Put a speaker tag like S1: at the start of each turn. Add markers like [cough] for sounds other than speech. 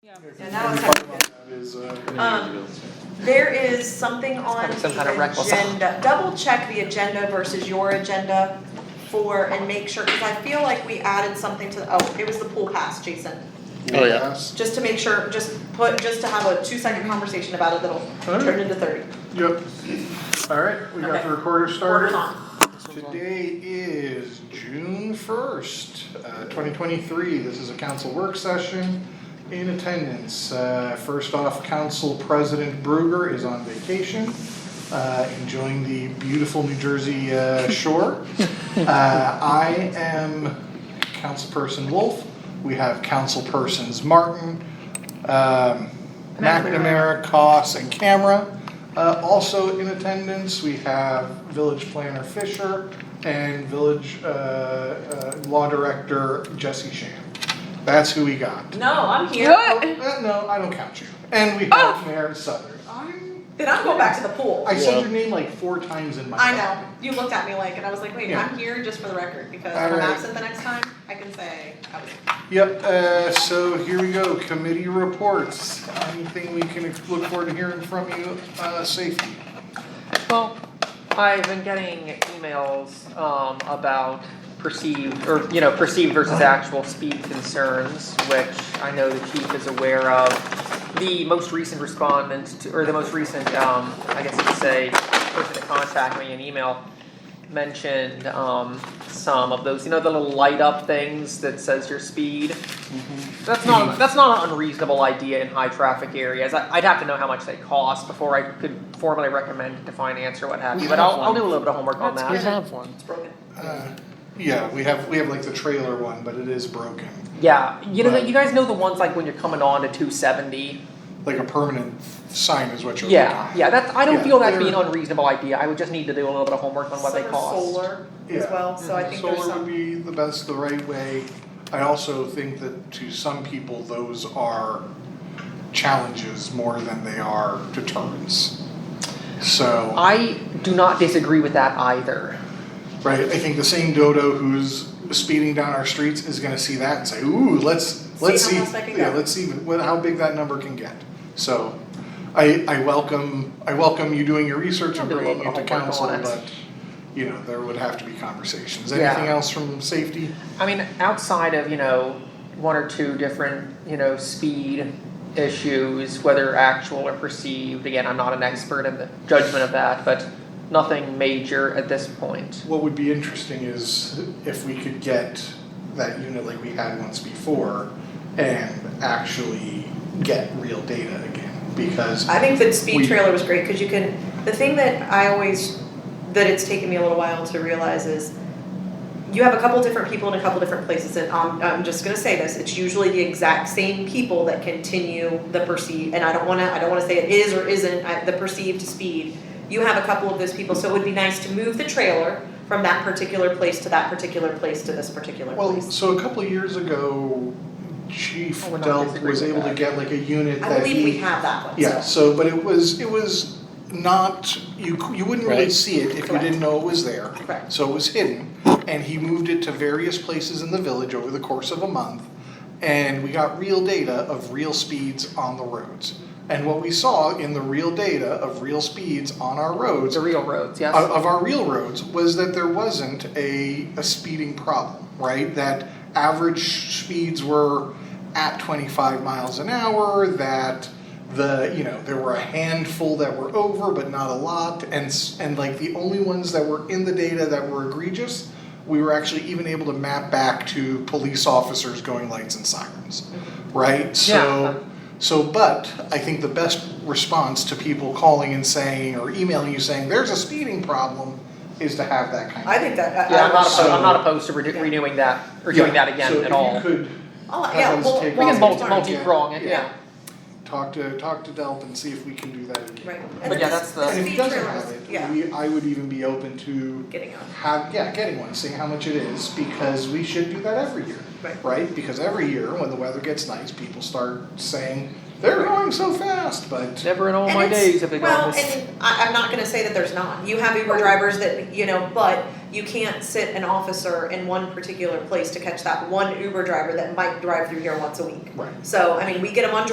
S1: Yeah.
S2: And now it's happening.
S3: uh,
S2: Um, there is something on
S4: some kind of
S2: the
S4: reckless-
S2: agenda, double check the agenda versus your agenda for, and make sure, cause I feel like we added something to, oh, it was the pool pass, Jason.
S3: Oh, yeah.
S2: Just to make sure, just put, just to have a two second conversation about it that'll turn into thirty.
S3: Yep. All right, we got
S2: Okay.
S3: the recorder
S2: Working
S3: started.
S2: on.
S3: Today is June first, uh, twenty twenty-three. This is a council work session. In attendance, uh, first off, Council President Bruger is on vacation, uh, enjoying the beautiful New Jersey, uh, [laughs] shore. Uh, I am Councilperson Wolf. We have Councilpersons Martin, um, McNamara, Koss, and Camera. Uh, also in attendance, we have Village Planner Fisher and Village uh, uh, Law Director Jesse Shan. That's who we got.
S2: No, I'm
S3: Oh, uh, no, I don't count you. And we
S2: Oh!
S3: have Mayor Southern.
S2: Then I'm going back to the pool.
S3: I said your name like four times in my.
S2: I know, you looked at me like, and I was like, wait,
S3: Yeah.
S2: I'm here just for the record, because
S3: All
S2: if I'm
S3: right.
S2: absent the next time, I can say, I was.
S3: Yep, uh, so here we go, committee reports, anything we can ex- look forward to hearing from you, uh, safety?
S4: Well, I've been getting emails um about perceived or you know perceived versus actual speed concerns, which I know the chief is aware of. The most recent respondent to, or the most recent um I guess you could say person to contact me an email mentioned um some of those you know the little light up things that says your speed. That's not that's not an unreasonable idea in high traffic areas. I, I'd have to know how much they cost before I could formally recommend it to finance or what have you. But I'll, I'll do a little bit of homework on that.
S5: have one.
S3: Uh, Yeah, we have, we have like the trailer one, but it is broken,
S4: Yeah, you know
S3: Right.
S4: you guys know the ones like when you're coming on to 270.
S3: like a permanent sign is what you're looking
S4: Yeah,
S3: at.
S4: yeah. That's I don't
S3: Yeah,
S4: feel that's
S3: they're-
S4: being an unreasonable idea. I would just need to do a little bit of homework on what they
S2: Some are
S4: cost.
S2: Solar as
S3: Yeah.
S2: well, so I think there's
S3: Solar would
S2: some,
S3: be the best, the right way, I also think that to some people, those are challenges more than they are deterrents. So.
S4: I do not disagree with that either.
S3: Right, I think the same dodo who's speeding down our streets is gonna see that and say, ooh, let's, let's
S2: how
S3: see,
S2: fast I can
S3: yeah,
S2: go."
S3: let's see what, how big that number can get. So, I, I welcome, I welcome you doing your research
S4: I'll
S3: and
S4: do a
S3: bringing
S4: little
S3: it to
S4: bit of homework
S3: council,
S4: on it.
S3: but, you know, there would have to be conversations.
S4: Yeah.
S3: Anything else from safety?
S4: I mean, outside of, you know, one or two different, you know, speed issues, whether actual or perceived, again, I'm not an expert in the judgment of that, but nothing major at this point.
S3: What would be interesting is if we could get that unit like we had once before and actually get real data again, because,
S2: I think the speed
S3: We-
S2: trailer was great, cause you can, the thing that I always, that it's taken me a little while to realize is you have a couple different people in a couple different places, and I'm, I'm just gonna say this, it's usually the exact same people that continue the perceived, and I don't wanna, I don't wanna say it is or isn't, I, the perceived speed. You have a couple of those people, so it would be nice to move the trailer from that particular place to that particular place to this particular place.
S3: Well, so a couple of years ago, Chief
S4: I would not
S3: Delp
S4: disagree
S3: was
S4: with
S3: able to
S4: that.
S3: get like a unit
S2: I
S3: that
S2: believe we
S3: he.
S2: have that one,
S3: Yeah,
S2: so.
S3: so, but it was, it was not, you, c- you wouldn't really
S5: Right.
S3: see it if you
S2: Correct.
S3: didn't know it was there.
S2: Correct.
S3: So it was hidden, and he moved it to various places in the village over the course of a month. And we got real data of real speeds on the roads. And what we saw in the real data of real speeds on our roads
S4: The real roads, yes?
S3: of, of our real roads was that there wasn't a, a speeding problem, right? That average speeds were at 25 miles an hour, that the, you know, there were a handful that were over, but not a lot. And, s- and like the only ones that were in the data that were egregious, we were actually even able to map back to police officers going lights and sirens, right?
S4: Yeah.
S3: So, so, but I think the best response to people calling and saying or emailing you saying there's a speeding problem is to have that kind of.
S2: I think that, I,
S4: Yeah, I'm not opposed,
S3: so-
S4: I'm not opposed to redo- renewing that, or doing that again at
S3: So
S4: all.
S3: if you could
S2: I'll-
S3: that
S2: Oh, yeah,
S3: one's
S2: well,
S3: taken.
S4: We
S2: well,
S4: can
S3: Yeah.
S4: multi,
S2: sorry.
S4: multi-prong it,
S3: Yeah.
S4: yeah.
S3: talk to talk to Delp and see if we can do that. again.
S2: Right.
S4: But yeah, that's the-
S3: And if he
S2: speed
S3: doesn't
S2: trailers,
S3: have it,
S2: yeah.
S3: we, I would even be open to
S2: Getting on.
S3: have yeah getting one, seeing how much it is because we should do that every year.
S2: Right.
S3: right? Because every year when the weather gets nice, people start saying they're going so fast, but
S4: Never in all
S2: And
S4: my
S2: it's-
S4: days have they gone
S2: Well,
S4: this.
S2: and I, I'm not gonna say that there's not, you have Uber drivers that, you know, but you can't sit an officer in one particular place to catch that one Uber driver that might drive through here once a week.
S3: Right.
S2: So, I mean, we get them on